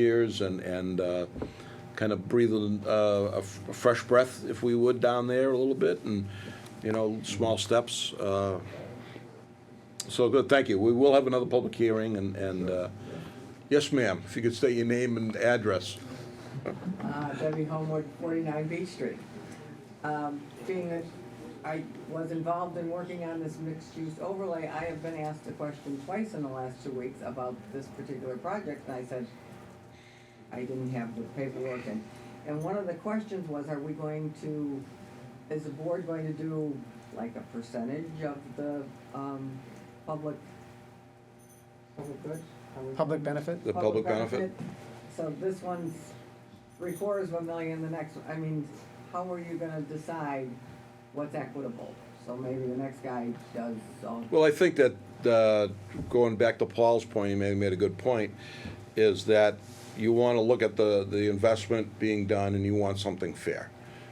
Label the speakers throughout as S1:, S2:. S1: years and, and uh, kind of breathe a- uh, a f- a fresh breath, if we would, down there a little bit, and, you know, small steps. uh, So, good, thank you. We will have another public hearing, and, and, uh, yes, ma'am, if you could state your name and address.
S2: Uh, Debbie Homewood, 49 Beach Street. Um, Being that I was involved in working on this mixed-use overlay, I have been asked the question twice in the last two weeks about this particular project, and I said, I didn't have the paperwork, and, and one of the questions was, are we going to, is the board going to do like a percentage of the, um, public, public good? Are we-
S3: Public benefit?
S1: The public benefit?
S2: So this one's, three quarters of a million, the next, one- I mean, how are you gonna decide what's equitable? So maybe the next guy does, so,
S1: Well, I think that, uh, going back to Paul's point, he made, made a good point, is that you want to look at the, the investment being done and you want something fair.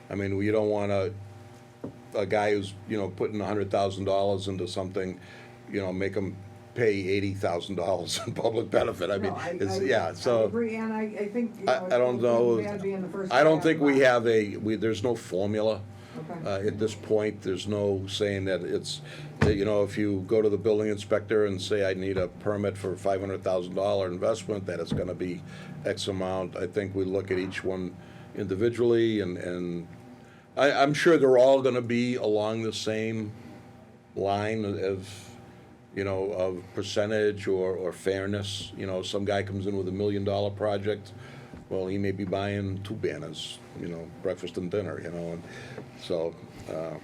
S1: I mean, you don't want a, a guy who's, you know, putting a hundred thousand dollars into something, you know, make him pay eighty thousand dollars in public benefit. I mean,
S2: No, I-
S1: it's,
S2: I-
S1: yeah, so.
S2: I agree, and I, I think, you know.
S1: I, I don't
S2: it's
S1: know.
S2: gotta be in the first
S1: I don't
S2: round.
S1: think we have a, we, there's no formula.
S2: Okay.
S1: Uh, at this point, there's no saying that it's, that, you know, if you go to the building inspector and say, I need a permit for five hundred thousand dollar investment, that it's gonna be X amount. I think we look at each one individually and, and I, I'm sure they're all gonna be along the same line of, you know, of percentage or, or fairness. You know, some guy comes in with a million dollar project, well, he may be buying two banners, you know, breakfast and dinner, you know, and so, uh,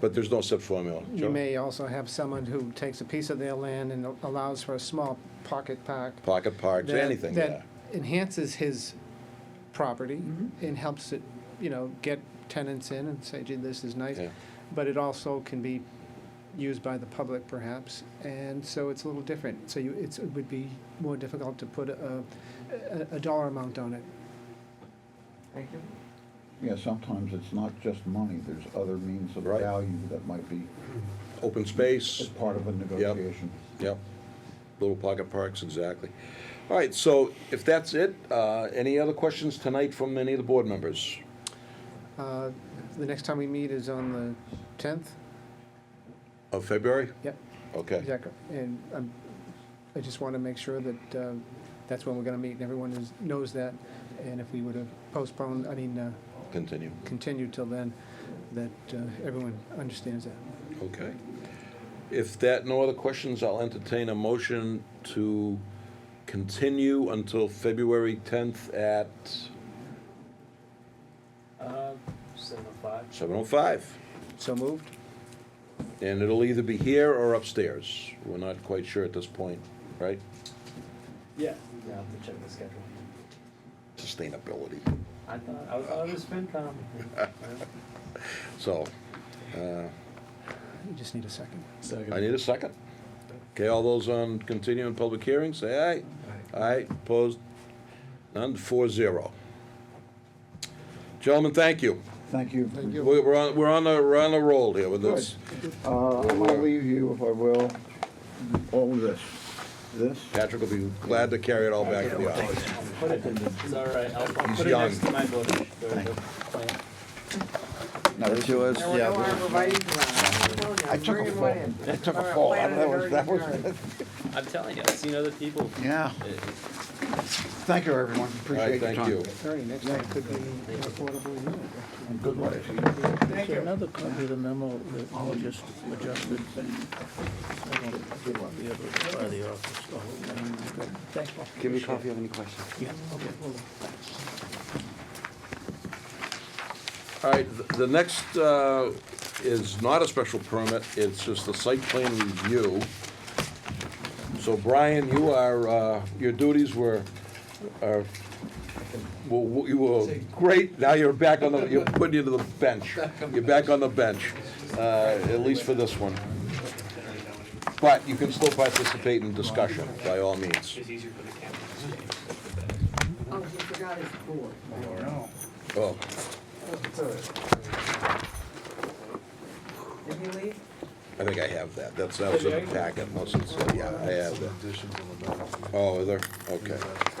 S1: but there's no set formula.
S3: You
S1: Joe?
S3: may also have someone who takes a piece of their land and allows for a small pocket park.
S1: Pocket parks,
S3: that-
S1: anything, yeah.
S3: That enhances his property and helps it, you know, get tenants in and say, gee, this is nice.
S1: Yeah.
S3: But it also can be used by the public perhaps, and so it's a little different. So you, it's, it would be more difficult to put a, a, a dollar amount on it.
S2: Thank you.
S4: Yeah, sometimes it's not just money, there's other means of
S1: Right.
S4: value that might be
S1: Open
S4: as
S1: space,
S4: part of a negotiation.
S1: yep, little pocket parks, exactly. All right, so if that's it, uh, any other questions tonight from any of the board members?
S3: Uh, The next time we meet is on the tenth?
S1: Of February?
S3: Yep.
S1: Okay.
S3: Exactly, and um, I just want to make sure that um, that's when we're going to meet, and everyone is, knows that. And if we were to postpone, I mean, uh,
S1: Continue.
S3: continue till then, that uh, everyone understands that.
S1: Okay. If that, no other questions, I'll entertain a motion to continue until February 10th at
S5: Uh, seven oh five.
S1: 7:05.
S3: So moved?
S1: And it'll either be here or upstairs. We're not quite sure at this point, right?
S5: Yeah. Yeah, I'll have to check the schedule.
S1: Sustainability.
S5: I thought, I was, I was FinCom.
S1: So, uh,
S3: You just need a second.
S1: I need a second. Okay, all those on continuing public hearing, say aye. Aye, opposed, none, four zero. Gentlemen, thank you.
S4: Thank you.
S3: Thank you.
S1: We're we're on, we're on a, we're on a roll here with this.
S4: Uh, I'm gonna leave you, if I will, all this, this,
S1: Patrick will be glad to carry it all back to the office.
S5: Put it in the, it's all right, I'll, I'll
S1: He's
S5: put it
S1: young.
S5: next to my book. There we go. Fine.
S4: no, this was,
S2: There were no arborvitae's around.
S4: I took a
S2: Bringing
S4: fall,
S2: one in.
S4: I took
S2: Or
S4: a fall,
S2: plant in
S4: that
S2: the
S4: was, that
S2: dirty
S4: was,
S2: yard.
S5: I'm telling you, I've seen other people.
S4: yeah,
S5: It-
S4: thank you, everyone,
S1: All right,
S4: appreciate your
S1: thank you.
S4: time.
S3: Attorney, next time could be an affordable unit.
S4: And good luck to you.
S2: Thank you.
S6: Another copy of the memo that all just adjusted thing. I don't have the other, by the office, the whole thing. Thanks, Paul.
S7: Give me a call if you have any questions.
S6: Yeah, okay, hold on.
S1: All right, th- the next uh, is not a special permit, it's just a site plan review. So Brian, you are, uh, your duties were, are, well, w- you were great, now you're back on the, you're putting you to the bench. You're back on the bench, uh, at least for this one. But you can still participate in discussion, by all means.
S2: Oh, you forgot his board.
S1: Oh,
S2: Did he leave?
S1: I think I have that, that's, that was in the packet, unless it's, yeah, I have that. Oh, is there, okay.